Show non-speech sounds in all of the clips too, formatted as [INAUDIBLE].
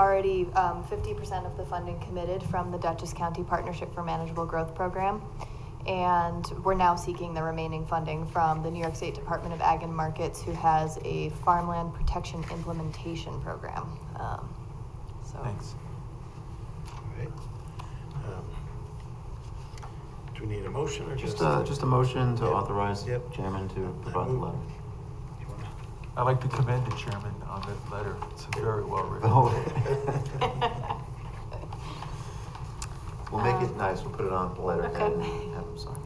already um, fifty percent of the funding committed from the Dutchess County Partnership for Manageable Growth Program. And we're now seeking the remaining funding from the New York State Department of Ag and Markets, who has a farmland protection implementation program. Um, So. Thanks. Alright. Um, Do we need a motion or just? Just a, just a motion to Yep. authorize Yep. chairman to I provide the move- letter. [LAUGHS] You wanna- I'd like to commend the chairman on that letter. It's very well written. Oh. We'll make it Um, nice, we'll put it on the letter Uh, okay. and have him sign.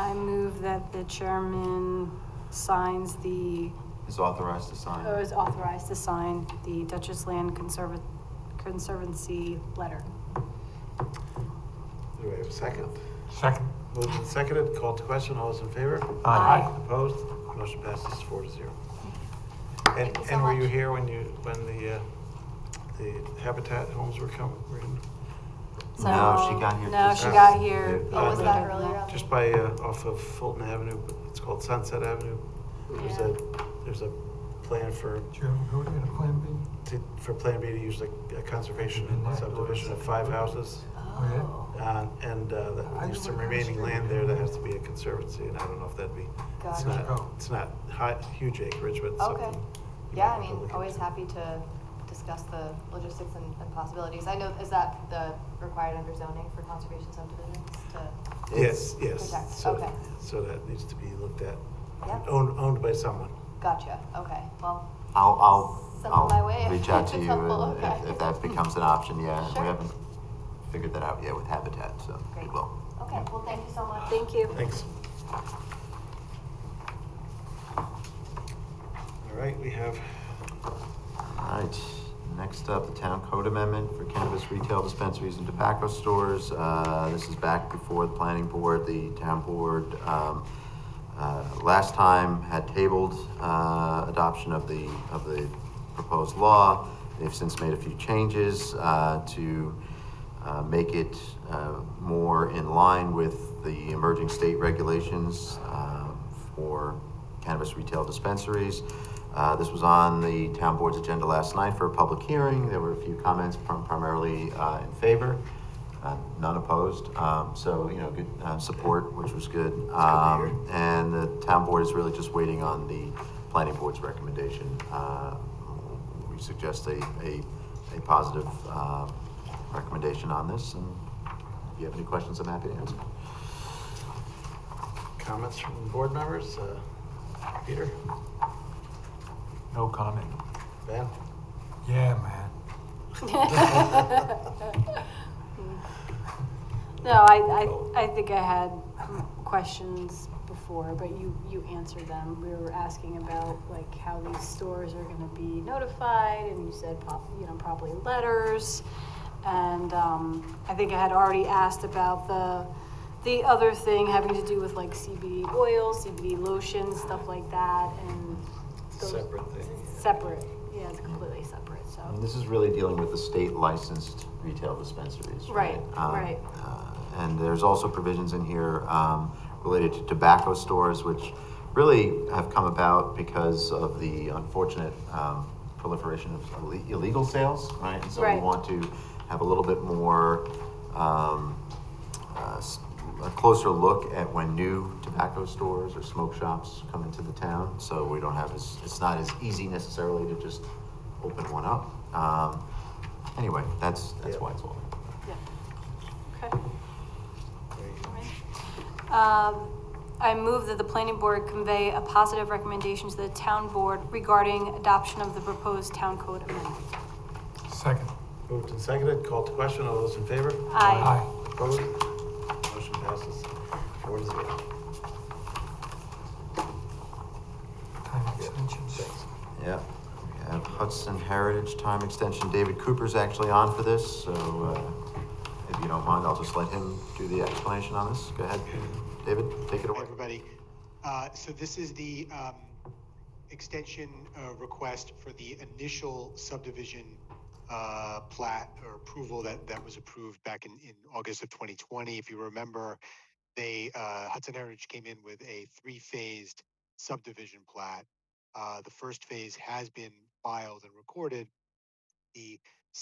I move that the chairman signs the, Is authorized to sign. Oh, or is authorized to sign the Duchess Land Conserva- Conservancy letter. Do we have a second? Second. Moved and seconded, called to question, all those in favor? Aye. Opposed? Motion passes four to zero. And, Thank you so and were you much. here when you, when the, uh, the Habitat homes were coming, were in? No, So- she got here No, just- she got here. Oh, was later that than earlier on? Just by, uh, off of Fulton Avenue, it's called Sunset Avenue. There's a, there's a plan for, Chairman, who do we have a plan B? to- for Plan B to use like a conservation Midnight or subdivision of five houses. Oh, Uh, And uh, the- I don't there's some know. remaining land there that has to be a conservancy, and I don't know if that'd be, it's Gotcha. not, it's not high, huge acreage, but it's Okay. something. you yeah, I might want to mean, look always into. happy to discuss the logistics and, and possibilities. I know, is that the required under zoning for conservation subdivisions to? Yes, yes. Protect, So- okay. So that needs to be looked at, Yeah. owned, owned by someone. Gotcha, okay, well, I'll, Send I'll, my way I'll if [LAUGHS] reach out to it's you helpful, and if, okay. if that becomes an option, yeah. Sure. We haven't figured that out yet with Habitat, so we great. will. Okay, well, thank you so much. Thank you. Thanks. All right, we have, All right, next up, the town code amendment for cannabis retail dispensaries and tobacco stores. Uh, This is back before the planning board, the town board, um, uh, last time had tabled uh, adoption of the, of the proposed law. They've since made a few changes uh, to uh, make it uh, more in line with the emerging state regulations uh, for cannabis retail dispensaries. Uh, This was on the town board's agenda last night for a public hearing. There were a few comments prim- primarily uh, in favor, uh, none opposed. Um, So, you know, good uh, support, which was good. Um, And the town board is really just waiting on the planning board's recommendation. Uh, We suggest a, a, a positive uh, recommendation on this, and if you have any questions, I'm happy to answer. comments from board members, uh, Peter, No comment. Ben? Yeah, man. No, I, I, I think I had questions before, but you, you answered them. We were asking about like how these stores are gonna be notified, and you said prob, you know, probably letters. And, um, I think I had already asked about the, the other thing having to do with like CBD oil, CBD lotion, stuff like that, and. those- Separate thing, yeah. Separate, yeah, it's completely separate, so. I mean, this is really dealing with the state licensed retail dispensaries. Right, Um, right. uh, And there's also provisions in here um, related to tobacco stores, which really have come about because of the unfortunate um, proliferation of ille- illegal sales, right? And so we Right. want to have a little bit more um, uh, s- a closer look at when new tobacco stores or smoke shops come into the town. So we don't have as, it's not as easy necessarily to just open one up. Um, anyway, that's, that's Yeah. why it's all. Yeah. Okay. There you go. Um, I move that the planning board convey a positive recommendation to the town board regarding adoption of the proposed town code amendment. Second. Moved and seconded, called to question, all those in favor? Aye. Opposed? Motion passes four to zero. Time extensions. Yeah. We have Hudson Heritage Time Extension. David Cooper's actually on for this, so uh, if you don't mind, I'll just let him do the explanation on this. Go ahead, David, take it Hi, away. everybody. Uh, So this is the um, extension uh, request for the initial subdivision uh, plat or approval that, that was approved back in, in August of 2020. If you remember, they, uh, Hudson Heritage came in with a three-phased subdivision plat. Uh, The first phase has been filed and recorded. The